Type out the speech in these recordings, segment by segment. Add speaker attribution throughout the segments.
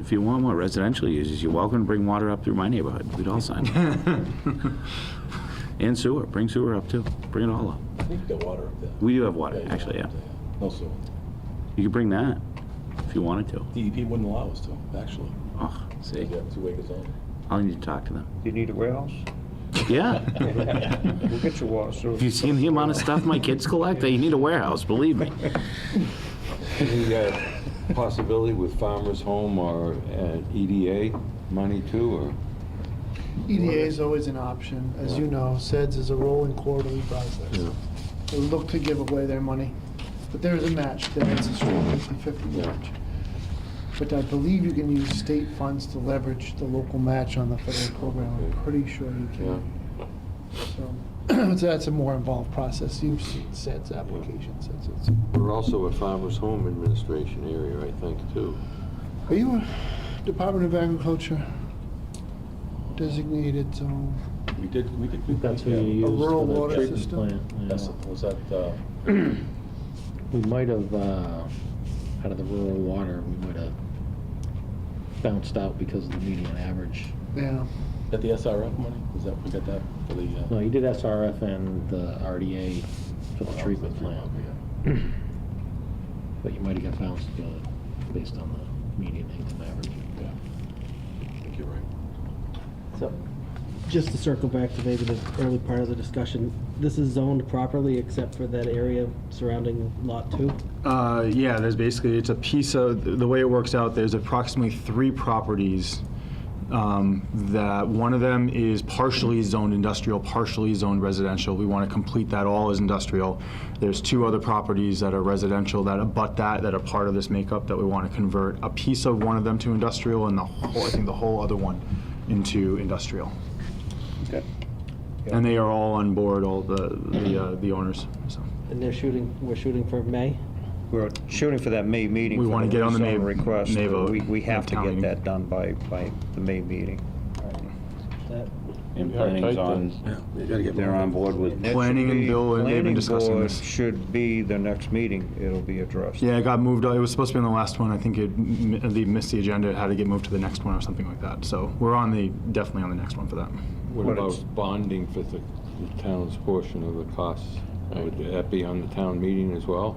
Speaker 1: If you want more residential uses, you're welcome to bring water up through my neighborhood. We'd all sign it. And sewer, bring sewer up too. Bring it all up.
Speaker 2: I think you got water up there.
Speaker 1: We do have water,
Speaker 2: Yeah, you
Speaker 1: actually, yeah.
Speaker 2: got water up there. No sewer.
Speaker 1: You could bring that if you wanted to.
Speaker 2: DEP E wouldn't allow us to, actually.
Speaker 1: Oh,
Speaker 2: You
Speaker 1: see,
Speaker 2: got two acres on.
Speaker 1: I'll need to talk to them.
Speaker 3: You need a warehouse?
Speaker 1: Yeah.
Speaker 3: We'll get you water, so.
Speaker 1: Have you seen the amount of stuff my kids collect? They need a warehouse, believe me.
Speaker 4: Any uh, possibility with Farmers Home or uh, EDA money too, or?
Speaker 5: EDA is always an option. As you know, SEDS is a rolling quarterly process. They look to give away their money, but there is a match, there is a straight 50/50
Speaker 4: Yeah.
Speaker 5: match. But I believe you can use state funds to leverage the local match on the federal program. I'm pretty sure you
Speaker 4: Yeah.
Speaker 5: can. So so that's a more involved process. You've seen SEDS applications, that's it's-
Speaker 4: We're also a Farmers Home Administration area, I think, too.
Speaker 5: Are you a Department of Agriculture designated zone?
Speaker 2: We did, we did. we-
Speaker 6: That's what
Speaker 2: yeah.
Speaker 6: you
Speaker 5: A
Speaker 6: use
Speaker 5: rural
Speaker 6: for the
Speaker 5: water
Speaker 6: treatment
Speaker 5: system?
Speaker 6: plant. yeah.
Speaker 2: That's- Was that, uh,
Speaker 6: We might have, uh, out of the rural water, we might have bounced out because of the median average.
Speaker 5: Yeah.
Speaker 2: that the SRF money? Was that, we got that for the? uh,
Speaker 6: No, you did SRF and the RDA for the treatment plant, but you might have got bounced uh, based on the median income average.
Speaker 2: Yeah. I think you're right.
Speaker 7: So, just to circle back to maybe the early part of the discussion, this is zoned properly except for that area surrounding Lot 2?
Speaker 8: Uh, yeah, there's basically, it's a piece of, the way it works out, there's approximately three properties um, that, one of them is partially zoned industrial, partially zoned residential. We want to complete that all as industrial. There's two other properties that are residential that abut that, that are part of this makeup that we want to convert a piece of one of them to industrial and the whole, I think the whole other one into industrial.
Speaker 3: Okay.
Speaker 8: And they are all on board, all the, the uh, the owners, so.
Speaker 7: And they're shooting, we're shooting for May?
Speaker 3: We're shooting for that May meeting.
Speaker 8: We
Speaker 3: for
Speaker 8: wanna get on the
Speaker 3: rezone
Speaker 8: May-
Speaker 3: Request.
Speaker 8: May vote,
Speaker 3: We, we have to
Speaker 8: town
Speaker 3: get
Speaker 8: meeting.
Speaker 3: that done by, by the May meeting.
Speaker 7: That-
Speaker 1: And
Speaker 4: Yeah,
Speaker 1: planning's
Speaker 4: tight,
Speaker 1: on,
Speaker 4: They're on board with.
Speaker 3: That should
Speaker 8: Planning and
Speaker 3: be-
Speaker 8: Bill, and they've been
Speaker 3: Planning
Speaker 8: discussing
Speaker 3: Board
Speaker 8: this.
Speaker 3: Should be the next meeting, it'll be addressed.
Speaker 8: Yeah, it got moved. It was supposed to be on the last one. I think it m- they missed the agenda. It had to get moved to the next one or something like that. So we're on the definitely on the next one for that.
Speaker 4: What
Speaker 3: But it's-
Speaker 4: about bonding for the the town's portion of the costs? Would that be on the town meeting as well?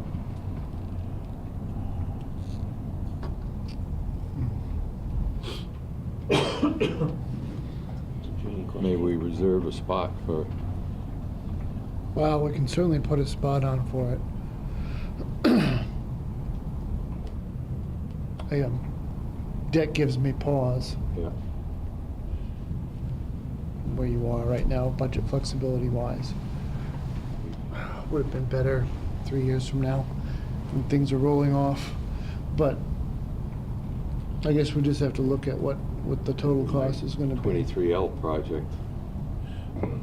Speaker 4: May we reserve a spot for,
Speaker 5: Well, we can certainly put a spot on for it. I, um, that gives me pause
Speaker 4: yeah,
Speaker 5: where you are right now, budget flexibility wise. Would have been better three years from now when things are rolling off, but I guess we just have to look at what, what the total cost is gonna be.
Speaker 4: 23L project?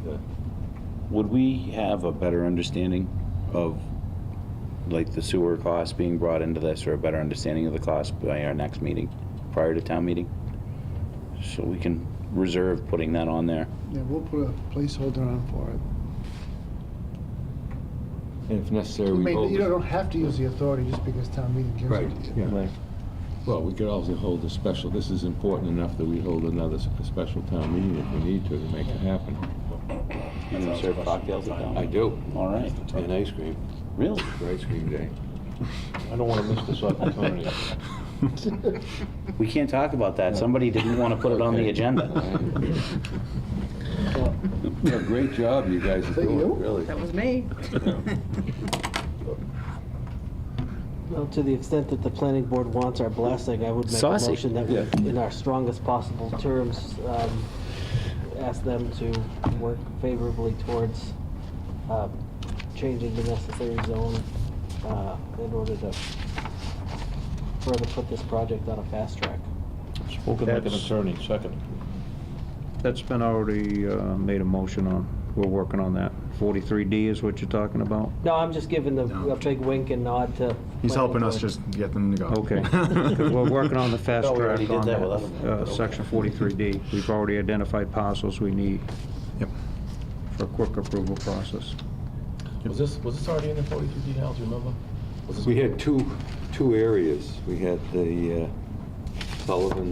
Speaker 4: That-
Speaker 1: would we have a better understanding of, like, the sewer costs being brought into this, or a better understanding of the cost by our next meeting, prior to town meeting? So we can reserve putting that on there.
Speaker 5: Yeah, we'll put a placeholder on for it.
Speaker 4: And if necessary,
Speaker 5: I
Speaker 4: we
Speaker 5: mean,
Speaker 4: hold.
Speaker 5: you
Speaker 4: it.
Speaker 5: don't have to use the authority just because town meeting gives
Speaker 4: Right,
Speaker 5: it to you.
Speaker 4: yeah. Well, we could also hold a special, this is important enough that we hold another s- a special town meeting if we need to, to make it happen.
Speaker 1: You gonna serve cocktails at town?
Speaker 4: I do,
Speaker 1: All right,
Speaker 4: and ice cream,
Speaker 1: really?
Speaker 4: for ice cream day. I don't want to miss this opportunity.
Speaker 1: We can't talk about that. Somebody didn't want to put it on the agenda.
Speaker 4: Yeah, Great job you guys are
Speaker 5: you?
Speaker 4: doing, really.
Speaker 9: That was me.
Speaker 7: Well, to the extent that the planning board wants our blessing, I would make a
Speaker 1: Saucy.
Speaker 7: motion that, we, in our strongest possible terms, um, ask them to work favorably towards um, changing the necessary zone uh, in order to further put this project on a fast track.
Speaker 6: Spoken
Speaker 3: like an That's-
Speaker 6: attorney, second.
Speaker 3: That's been already uh, made a motion on, we're working on that. 43D is what you're talking about?
Speaker 7: No, I'm just giving the, a big wink and nod to.
Speaker 8: He's helping
Speaker 7: planning
Speaker 8: us
Speaker 7: board.
Speaker 8: just get them to go.
Speaker 3: Okay. 'Cause We're working on the fast
Speaker 1: Thought we already
Speaker 3: track
Speaker 1: did
Speaker 3: on
Speaker 1: that
Speaker 3: that,
Speaker 1: with
Speaker 3: uh, section 43D. We've already identified parcels we need
Speaker 8: Yep.
Speaker 3: for a quick approval process.
Speaker 2: Was this, was this already in the 43D now, do you remember? Was this
Speaker 4: We had two, two areas. We had the uh, Sullivan